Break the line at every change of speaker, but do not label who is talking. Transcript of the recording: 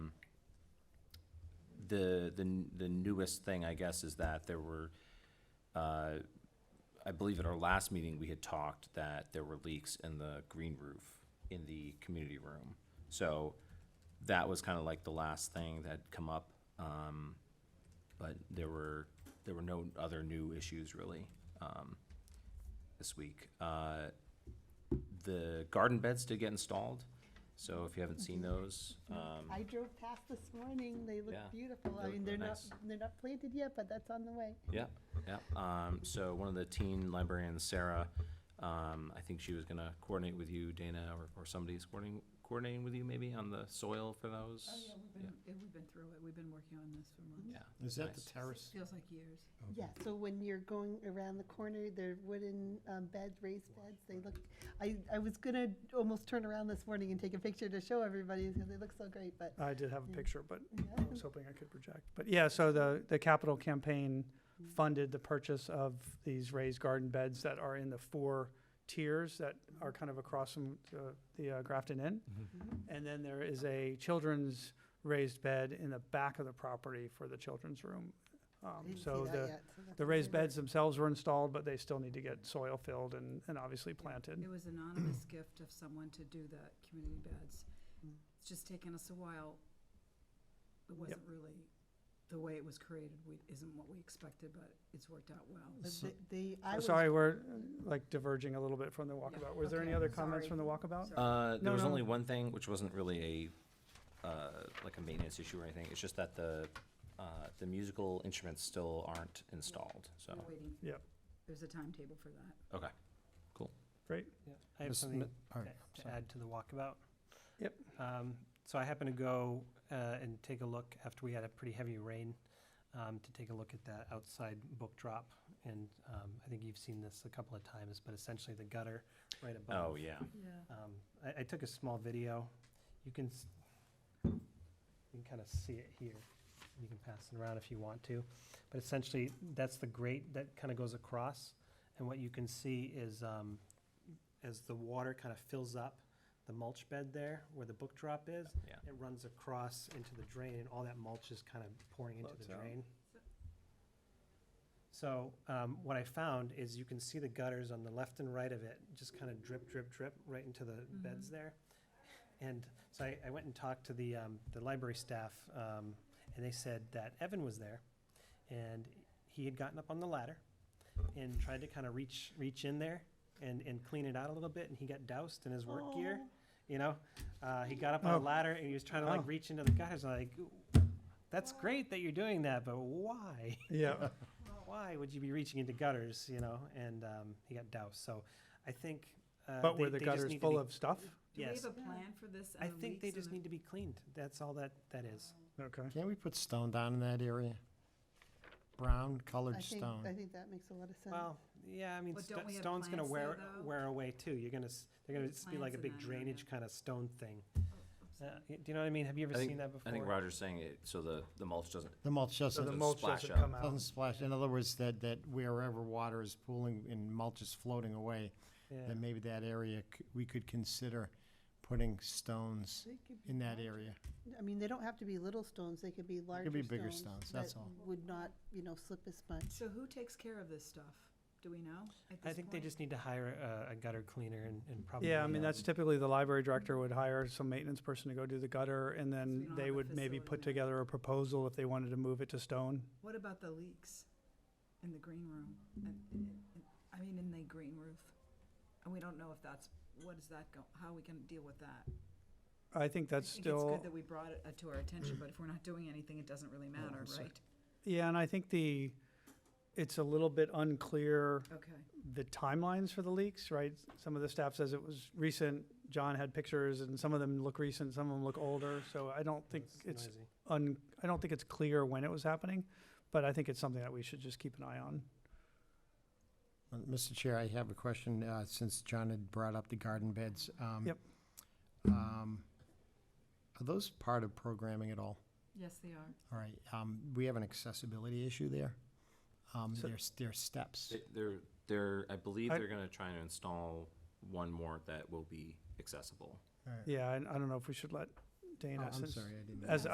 the, the, n- the newest thing, I guess, is that there were, uh, I believe at our last meeting, we had talked that there were leaks in the green roof in the community room. So that was kind of like the last thing that had come up. Um, but there were, there were no other new issues really, um, this week. Uh, the garden beds did get installed, so if you haven't seen those, um,
I drove past this morning, they
Yeah,
look beautiful,
they
I mean,
look
they're not,
nice.
they're not planted yet, but that's on the way.
Yeah, yeah. Um, so one of the teen librarians, Sarah, um, I think she was gonna coordinate with you, Dana, or, or somebody's coordinating, coordinating with you maybe on the soil for those?
Oh, yeah, we've been, yeah, we've been through it, we've been working on this for months.
Yeah.
Is that the
Nice.
terrace?
Feels like years.
Yeah, so when you're going around the corner, they're wooden um, beds, raised beds, they look, I, I was gonna almost turn around this morning and take a picture to show everybody, because they look so great, but,
I did have
Yeah.
a picture, but
yeah,
I was hoping I could project. But yeah, so the, the capital campaign
Mm-hmm.
funded the purchase of these raised garden beds that are in the four tiers that are kind of across from uh, the uh, Grafton Inn.
Mm-hmm.
And then there is a children's raised bed in the back of the property for the children's room.
I
Um,
didn't see
So
that
the,
yet, so that's
the raised
exciting.
beds themselves were installed, but they still need to get soil filled and, and obviously planted.
It was anonymous gift of someone to do the community beds.
Mm.
It's just taken us a while. It wasn't really, the way it was created, we, isn't what we expected, but it's worked out well.
But
So-
they- They, I was,
Sorry, we're uh, like diverging a little bit from the walkabout. Was there any
okay,
other comments
sorry.
from the walkabout?
Sorry.
Uh, there
No,
was
no.
only one thing, which wasn't really a, uh, like a maintenance issue or anything, it's just that the, uh, the musical instruments still aren't installed,
Uh,
so,
We're waiting.
Yep.
There's a timetable for that.
okay.
I have
Miss
something
Mi- all right,
to
sorry.
add to the walkabout.
Yep.
Um, So I happened to go uh, and take a look after we had a pretty heavy rain, um, to take a look at that outside book drop. And um, I think you've seen this a couple of times, but essentially the gutter right above.
Oh, yeah,
Yeah.
Um, I, I took a small video. You can, s- you can kind of see it here. You can pass it around if you want to. But essentially, that's the grate that kind of goes across. And what you can see is, um, as the water kind of fills up the mulch bed there where the book drop is,
yeah.
it runs across into the drain and all that mulch is kind of pouring into the
Floats out.
drain. So, um, what I found is you can see the gutters on the left and right of it, just kind of drip, drip, drip right into the
Mm-hmm.
beds there. And so I, I went and talked to the, um, the library staff, um, and they said that Evan was there and he had gotten up on the ladder and tried to kind of reach, reach in there and, and clean it out a little bit and he got doused in his work gear, you know? Uh, he got up on
Oh.
the ladder and he was trying to
Oh.
like reach into the gutters, and I'm like, that's great that you're doing that, but why?
Yeah.
Why would you be reaching into gutters, you know? And, um, he got doused, so I think, uh.
But
they-
were the
they just
gutters
need to
full
be-
of stuff?
Do we
Yes.
have a plan for this?
I
and the
think they
leaks and
just
the-
need to be cleaned, that's all that, that is.
Oh,
Okay.
Can't we put stone down in that area? Brown
I
colored
think,
stone.
I think that makes a lot of sense.
Well, yeah, I mean,
But
sto-
don't we have
stone's gonna
plants there,
wear,
though?
wear away too. You're gonna, s- they're gonna
There's
s- be like
plants
a
in
big
that area.
drainage kind of stone thing.
Oh, I'm
Uh,
sorry.
y- Do you know what I mean? Have you ever
I think-
seen that before?
I think Roger's saying it, so the, the mulch doesn't,
The mulch
So the
doesn't,
mulch
splash
doesn't
out.
come
doesn't
out.
splash. In other words, that, that wherever water is pooling and mulch is floating away,
Yeah.
then maybe that area, c- we could consider putting stones
They could be
in that
large.
area.
I mean, they don't have to be little stones, they could be larger
could
stones.
be bigger stones, that's all.
That would not, you know, slip as much.
So who takes care of this stuff? Do we know at
I
this
think they
point?
just need to hire a, a gutter cleaner and, and probably.
Yeah, I mean,
um,
that's typically the library director would hire some maintenance person to go do the gutter, and
we
then
don't have
they
a
would maybe put
facility.
together a proposal if they wanted to move it to stone.
What about the leaks in the green room? And- and- and- I mean, in the green roof? And we don't know if that's, what is that go, how are we gonna deal with that?
I think that's
I think it's
still,
good that we brought it uh, to our attention, but if we're not doing anything, it doesn't really matter,
I'm sorry.
right?
yeah, and I think the, it's a little bit unclear
Okay.
the timelines for the leaks, right? Some of the staff says it was recent, John had pictures, and some of them look recent, some of them look older, so I don't think it's
noisy.
un, I don't think it's clear when it was happening, but I think it's something that we should just keep an eye on.
Uh, Mr. Chair, I have a question, uh, since John had brought up the garden beds. um,
Yep.
um, Are those part of programming at all?
Yes, they are.
All right, um, we have an accessibility issue there. Um,
So-
there's, there's steps.
they- they're, they're, I believe
I-
they're gonna try to install one more that will be accessible.
All right.
Yeah, and I don't know if we should let
Oh,
Dana,
I'm
since,
sorry, I didn't.
as